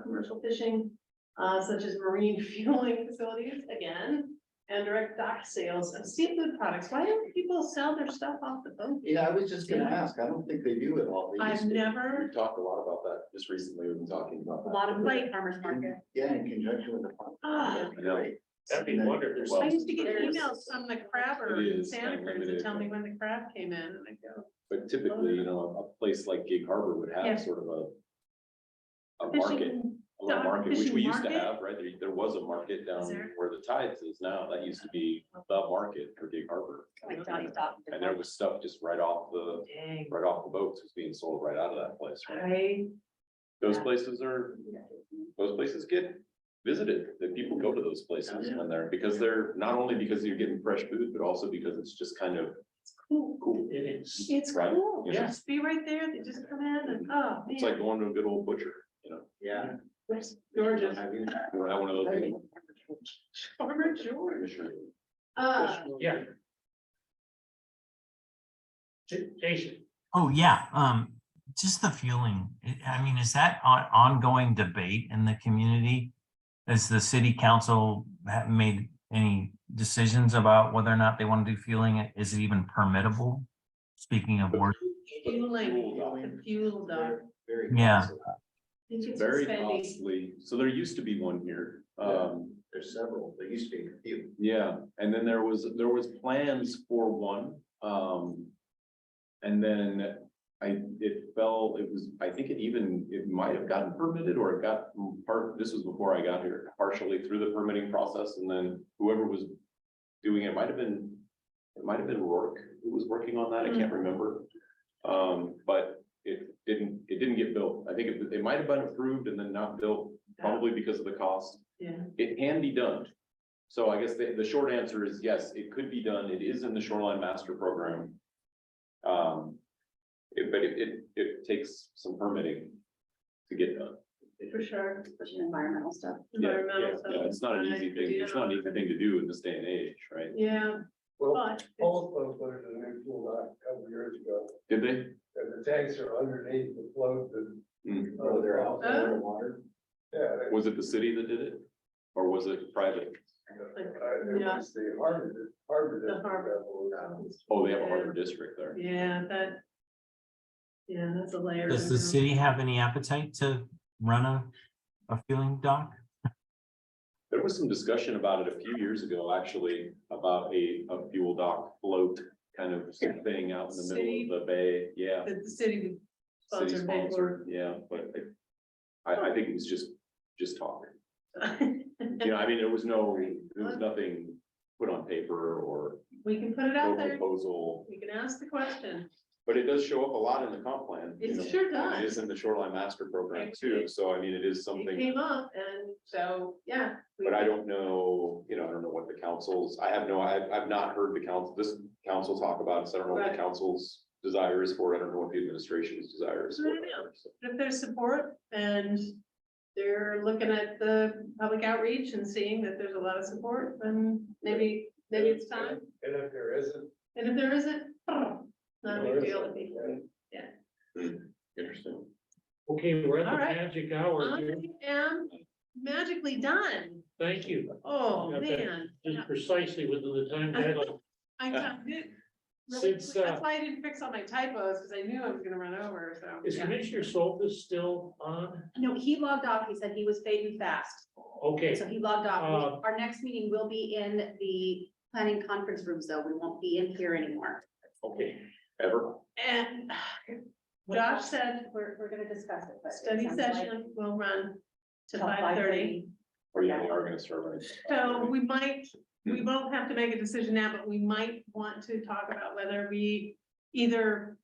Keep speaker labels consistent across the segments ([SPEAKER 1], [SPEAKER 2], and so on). [SPEAKER 1] commercial fishing, uh, such as marine fueling facilities, again, and direct dock sales of seafood products. Why don't people sell their stuff off the boat?
[SPEAKER 2] Yeah, I was just gonna ask, I don't think they do it all. They
[SPEAKER 1] I've
[SPEAKER 2] just-
[SPEAKER 1] never,
[SPEAKER 3] We've talked a lot about that, just recently we've been talking about
[SPEAKER 4] A
[SPEAKER 3] that.
[SPEAKER 4] lot of
[SPEAKER 1] Like-
[SPEAKER 4] farmers market.
[SPEAKER 2] Yeah, in conjunction with the. farm.
[SPEAKER 1] Ah.
[SPEAKER 2] That'd be
[SPEAKER 3] I know.
[SPEAKER 2] great.
[SPEAKER 5] That'd be
[SPEAKER 2] Something that-
[SPEAKER 5] wonderful.
[SPEAKER 1] I used to get
[SPEAKER 4] There's-
[SPEAKER 1] emails from the crabber
[SPEAKER 3] It
[SPEAKER 1] in
[SPEAKER 3] is
[SPEAKER 1] Santa Cruz to
[SPEAKER 3] unlimited.
[SPEAKER 1] tell me when the crab came in, and I go,
[SPEAKER 3] But typically, you know, a place like Gig Harbor would
[SPEAKER 1] Yeah.
[SPEAKER 3] have sort of a. A market,
[SPEAKER 1] fishing,
[SPEAKER 3] a little
[SPEAKER 1] dock,
[SPEAKER 3] market, which
[SPEAKER 1] fishing
[SPEAKER 3] we used to
[SPEAKER 1] market?
[SPEAKER 3] have, right? There, there was a market down
[SPEAKER 1] Is there?
[SPEAKER 3] where the tides is now. That used to be the market for Gig Harbor.
[SPEAKER 4] Like Johnny's Dock.
[SPEAKER 3] And there was stuff just right off the,
[SPEAKER 1] dang,
[SPEAKER 3] right off the boats was being sold right out of that place. right?
[SPEAKER 1] I,
[SPEAKER 3] Those places are, those places get visited. The people go to those places when they're, because they're, not only because you're getting fresh food, but also because it's just kind of
[SPEAKER 1] it's cool.
[SPEAKER 3] cool.
[SPEAKER 5] It is.
[SPEAKER 1] It's
[SPEAKER 3] Right,
[SPEAKER 1] cool,
[SPEAKER 3] yeah.
[SPEAKER 1] just be right there, they just come in and, oh,
[SPEAKER 3] It's like
[SPEAKER 1] man.
[SPEAKER 3] going to a good old butcher, you know?
[SPEAKER 2] Yeah.
[SPEAKER 1] Where's Georgia,
[SPEAKER 2] Have you-
[SPEAKER 3] You don't have one of those. anymore.
[SPEAKER 1] Farmer George.
[SPEAKER 3] Commissioner.
[SPEAKER 1] Uh,
[SPEAKER 5] Yeah. J- Jason,
[SPEAKER 6] Oh, yeah, um, just the fueling. I- I mean, is that on, ongoing debate in the community? Has the city council ha- made any decisions about whether or not they want to do fueling? Is it even permittable? Speaking of work,
[SPEAKER 1] fueling,
[SPEAKER 2] Fueling.
[SPEAKER 1] the fuel dock.
[SPEAKER 2] Very
[SPEAKER 6] Yeah.
[SPEAKER 2] possible.
[SPEAKER 1] They should
[SPEAKER 3] Very
[SPEAKER 1] suspend these.
[SPEAKER 3] costly. So there used to be one here. Um,
[SPEAKER 2] There's several, there used to be a few.
[SPEAKER 3] yeah, and then there was, there was plans for one, um. And then I, it fell, it was, I think it even, it might have gotten permitted or it got part, this was before I got here, partially through the permitting process and then whoever was. Doing it might have been, it might have been Rourke who was working on that, I can't remember. Um, but it didn't, it didn't get built. I think it, they might have been approved and then not built, probably because of the cost.
[SPEAKER 1] Yeah.
[SPEAKER 3] It can be done. So I guess the, the short answer is yes, it could be done. It is in the shoreline master program. Um, it- but it, it, it takes some permitting to get done.
[SPEAKER 1] For sure.
[SPEAKER 4] Especially environmental stuff.
[SPEAKER 3] Yeah,
[SPEAKER 1] Environmental
[SPEAKER 3] yeah, yeah, It's not an
[SPEAKER 1] stuff.
[SPEAKER 3] easy
[SPEAKER 1] I
[SPEAKER 3] thing,
[SPEAKER 1] do
[SPEAKER 3] it's not an easy Oh, thing to do in this day and age, right?
[SPEAKER 1] Yeah,
[SPEAKER 7] Well,
[SPEAKER 1] but. it's-
[SPEAKER 7] Paul's boat put in a new pool dock a couple years ago,
[SPEAKER 3] Did they?
[SPEAKER 7] and the tanks are underneath the float and.
[SPEAKER 3] Hmm.
[SPEAKER 2] Oh, they're out there in
[SPEAKER 1] Oh.
[SPEAKER 2] the water.
[SPEAKER 7] Yeah. they-
[SPEAKER 3] Was it the city that did it? Or was it private?
[SPEAKER 7] uh, It
[SPEAKER 1] Yeah.
[SPEAKER 7] was the harbor, harbor.
[SPEAKER 1] The harbor.
[SPEAKER 3] Oh, they have a harbor district there.
[SPEAKER 1] Yeah, that. Yeah, that's a layer.
[SPEAKER 6] does the
[SPEAKER 1] down.
[SPEAKER 6] city have any appetite to run a, a fueling dock?
[SPEAKER 3] There was some discussion about it a few years ago, actually, about a, a fuel dock float kind of thing out in the middle of the bay, yeah.
[SPEAKER 1] That the city would
[SPEAKER 3] City
[SPEAKER 1] sponsor paid
[SPEAKER 3] sponsored, yeah, but I- I, I think it was just, just talk. You know, I mean, there was no, there was nothing put on paper or
[SPEAKER 1] We can put it
[SPEAKER 3] no
[SPEAKER 1] out there,
[SPEAKER 3] proposal.
[SPEAKER 1] we can ask the question.
[SPEAKER 3] But it does show up a lot in the comp plan. you
[SPEAKER 1] It
[SPEAKER 3] know,
[SPEAKER 1] sure
[SPEAKER 3] and It
[SPEAKER 1] does.
[SPEAKER 3] is in the shoreline master program too,
[SPEAKER 1] Actually,
[SPEAKER 3] so I mean, it is
[SPEAKER 1] It
[SPEAKER 3] something,
[SPEAKER 1] came up and so, yeah. we-
[SPEAKER 3] but I don't know, you know, I don't know what the councils, I have no, I've, I've not heard the council, this council talk about it, so I don't know what the
[SPEAKER 1] Right.
[SPEAKER 3] council's desire is for, it. I don't know what the administration's desire is
[SPEAKER 1] I
[SPEAKER 3] for.
[SPEAKER 1] don't
[SPEAKER 3] it,
[SPEAKER 1] know.
[SPEAKER 3] so.
[SPEAKER 1] If there's support and they're looking at the public outreach and seeing that there's a lot of support, then maybe, maybe it's time.
[SPEAKER 7] And if there isn't.
[SPEAKER 1] And if there isn't, not a
[SPEAKER 7] there
[SPEAKER 1] big deal to
[SPEAKER 7] isn't,
[SPEAKER 1] me.
[SPEAKER 7] then
[SPEAKER 3] Interesting.
[SPEAKER 5] okay, we're at the
[SPEAKER 1] All right.
[SPEAKER 5] magic hour.
[SPEAKER 1] I
[SPEAKER 5] here.
[SPEAKER 1] am magically done.
[SPEAKER 5] Thank you.
[SPEAKER 1] Oh,
[SPEAKER 5] Okay.
[SPEAKER 1] man.
[SPEAKER 5] Just precisely within the time
[SPEAKER 1] Uh-huh.
[SPEAKER 5] deadline.
[SPEAKER 1] I got it. Really
[SPEAKER 5] Since,
[SPEAKER 1] quick.
[SPEAKER 5] uh,
[SPEAKER 1] That's why I didn't fix all my typos, because I knew I was gonna run over, so.
[SPEAKER 5] Is
[SPEAKER 1] yeah.
[SPEAKER 5] Commissioner Soltis still on?
[SPEAKER 4] No, he logged off. He said he was fading fast.
[SPEAKER 5] Okay,
[SPEAKER 4] So he logged off.
[SPEAKER 5] Uh,
[SPEAKER 4] We- Our next meeting will be in the planning conference rooms, though. We won't be in here anymore.
[SPEAKER 5] okay.
[SPEAKER 3] Ever?
[SPEAKER 1] And Josh said,
[SPEAKER 4] We're, we're gonna discuss it, but. it
[SPEAKER 1] study
[SPEAKER 4] sounds like
[SPEAKER 1] session will run to
[SPEAKER 4] till
[SPEAKER 1] five thirty.
[SPEAKER 4] 5:30.
[SPEAKER 3] Or yeah, they are gonna serve it.
[SPEAKER 1] So we might, we won't have to make a decision now, but we might want to talk about whether we either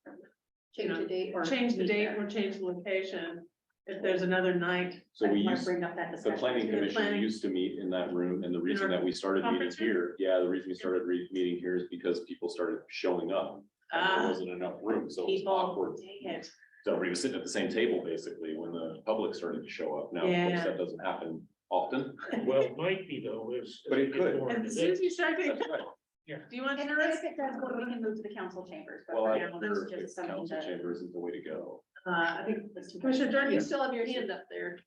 [SPEAKER 4] Change the date or.
[SPEAKER 1] change the
[SPEAKER 4] meet
[SPEAKER 1] date
[SPEAKER 4] there.
[SPEAKER 1] or change the location. If there's another night,
[SPEAKER 3] So
[SPEAKER 4] I
[SPEAKER 3] we
[SPEAKER 4] wanna
[SPEAKER 3] used,
[SPEAKER 4] Bring up that
[SPEAKER 3] the
[SPEAKER 4] discussion.
[SPEAKER 3] planning
[SPEAKER 1] The
[SPEAKER 3] commission
[SPEAKER 1] planning-
[SPEAKER 3] used to meet in that room, and the reason
[SPEAKER 1] our
[SPEAKER 3] that we started meeting
[SPEAKER 1] conference room?
[SPEAKER 3] here, yeah, the reason we started re- meeting here is because people started showing up. and
[SPEAKER 1] Ah,
[SPEAKER 3] There wasn't enough room, so it was
[SPEAKER 1] people.
[SPEAKER 3] awkward.
[SPEAKER 1] dang it.
[SPEAKER 3] So we were sitting at the same table basically when the public started to show up. Now, of
[SPEAKER 1] Yeah.
[SPEAKER 3] course, that doesn't happen often.
[SPEAKER 5] Well, it might be though, it's.
[SPEAKER 3] But it could.
[SPEAKER 1] And as soon as you start doing,
[SPEAKER 3] That's right.
[SPEAKER 1] do you want
[SPEAKER 4] If
[SPEAKER 1] to?
[SPEAKER 4] if it does, go, we can move to the council chambers, but
[SPEAKER 3] Well,
[SPEAKER 4] for
[SPEAKER 3] I
[SPEAKER 4] now,
[SPEAKER 3] wonder
[SPEAKER 4] that's
[SPEAKER 3] if
[SPEAKER 4] just something
[SPEAKER 3] council
[SPEAKER 4] that.
[SPEAKER 3] chambers is the way to go.
[SPEAKER 1] Uh, I think,
[SPEAKER 4] that's too bad.
[SPEAKER 1] Commissioner Jordan, you still have your hand up there.